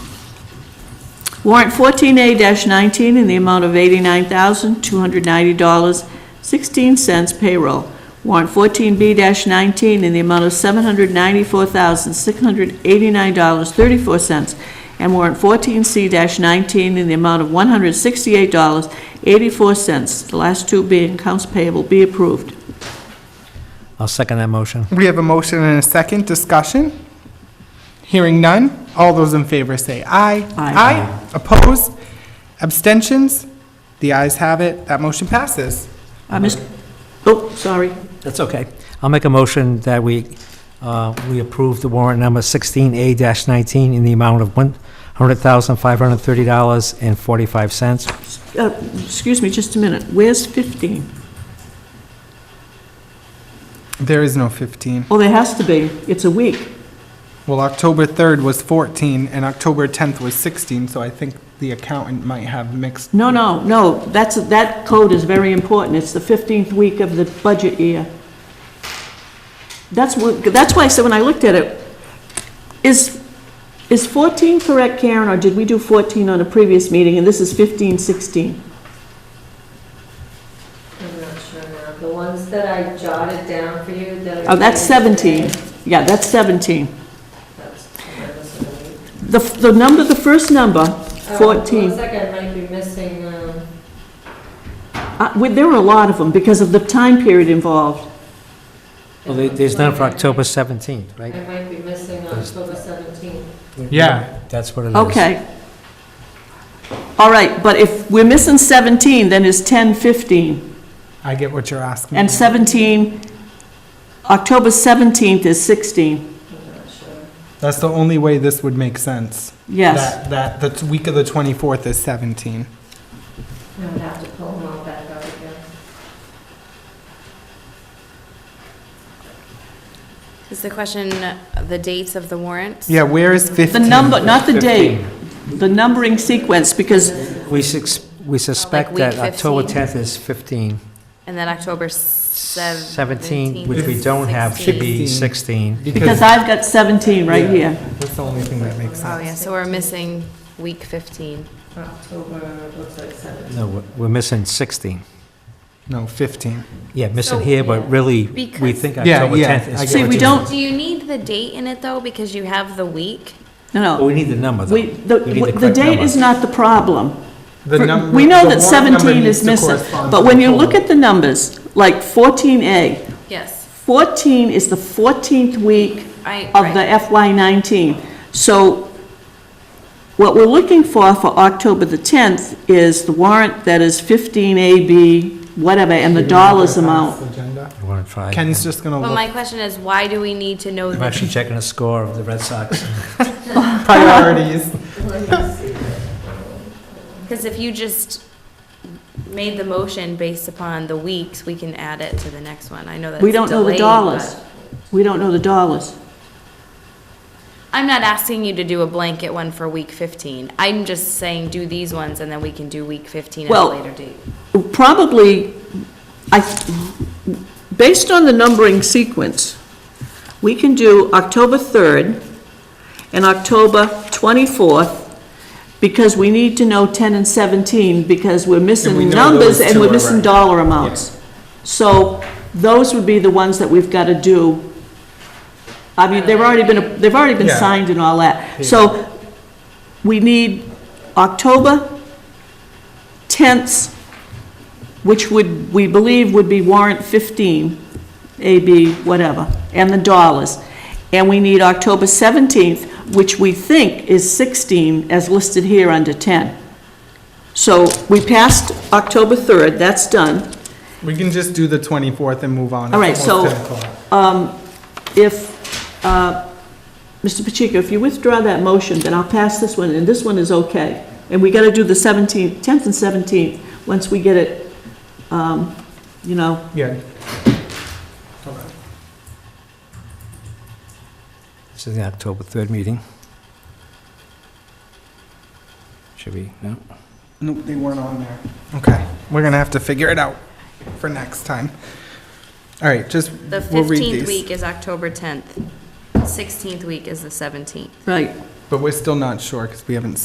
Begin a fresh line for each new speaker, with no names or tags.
Warrant 14A-19 in the amount of $89,290.16 payroll. Warrant 14B-19 in the amount of $794,689.34. And warrant 14C-19 in the amount of $168.84, the last two being accounts payable, be approved.
I'll second that motion.
We have a motion and a second discussion. Hearing none, all those in favor say aye.
Aye.
Opposed? Abstentions? The ayes have it, that motion passes.
Uh, Mr., oh, sorry.
That's okay. I'll make a motion that we, uh, we approve the warrant number 16A-19 in the amount of $100,530.45.
Uh, Excuse me just a minute. Where's 15?
There is no 15.
Well, Oh, there has to be. It's a week.
Well, October 3rd was 14, and October 10th was 16, so I think the accountant might have mixed.
No, no, no, that's, that code is very important. It's the 15th week of the budget year. That's what, that's why I said when I looked at it, is, is 14 correct, Karen, or did we do 14 on a previous meeting, and this is 15, 16?
I'm not sure. The ones that I jotted down for you that I.
Oh, that's 17. Yeah, that's 17.
That's- I was gonna-
The, f- the number, the first number,
Uh,
Oh, Looks
14,
like I might be missing, um,
Uh, we- there were a lot of them because of the time period involved.
Well, there- there's none for October 17th,
I
right?
might be missing October 17th.
Yeah.
That's what it is.
Okay. All right, but if we're missing 17, then it's 10, 15.
I get what you're asking.
And 17, October 17th is 16,
I'm not sure.
That's the only way this would make sense.
yes.
That, that, the week of the 24th is 17.
I would have to pull them all back out again.
Is the question uh, the dates of the warrants?
Yeah, where is 15?
The number, not the date, the numbering sequence, because,
We sus- we suspect
week
that October
15.
10th is 15.
And then October
17,
17th?
which we don't have, should be 16.
because I've got 17 right here.
That's the only thing that makes
Oh,
sense.
yeah, so we're missing week 15.
October, looks like 17th.
No, we're- we're missing 16.
No, 15.
Yeah, missing
So-
here, but really, we
Because-
think
Yeah,
October
yeah,
10th is
I
14.
get
See, we don't,
Do you need the date in it, though, because you have the week?
no,
Well,
no.
we need the number, though.
We, the,
We need
the
correct
date
number.
is not the problem.
The
For-
num-
We know
the
that
warrant number
17
needs
is
to
missing,
correspond
but
to
when
the
you
total.
look at the numbers, like 14A,
Yes.
14 is the 14th week
I,
of the
right.
FY19. So what we're looking for for October the 10th is the warrant that is 15AB, whatever, and the dollars amount.
Agenda.
You want to try?
Ken's just gonna
But my
look,
question is, why do we need to know
I'm
the
actually checking the score of the Red Sox.
priorities.
Because if you just made the motion based upon the weeks, we can add it to the next one. I know that's
We don't know the
delayed,
dollars.
but-
We don't know the dollars.
I'm not asking you to do a blanket one for week 15. I'm just saying do these ones and then we can do week 15 at a
Well-
later date.
Probably, I, based on the numbering sequence, we can do October 3rd and October 24th, because we need to know 10 and 17, because we're
And we
missing
know
numbers
those
and
two
we're
are
missing
right.
dollar amounts. So those would be the ones that we've got to do. I mean, they've already been, they've already been
Yeah.
signed and all that. So we need October 10th, which would, we believe would be warrant 15, AB, whatever, and the dollars. And we need October 17th, which we think is 16, as listed here under 10. So we passed October 3rd, that's done.
We can just do the 24th and move on.
All right,
It's
so-
almost 10 o'clock.
If, uh, Mr. Pacheco, if you withdraw that motion, then I'll pass this one, and this one is okay. And we got to do the 17th, 10th and 17th, once we get it, um, you know,
Yeah,
This is the October 3rd meeting. Should we, no?
nope, they weren't on there. Okay, we're gonna have to figure it out for next time. All right, just,
The
we'll read
15th
these.
week is October 10th. 16th week is the 17th.
right.
But we're still not sure because we haven't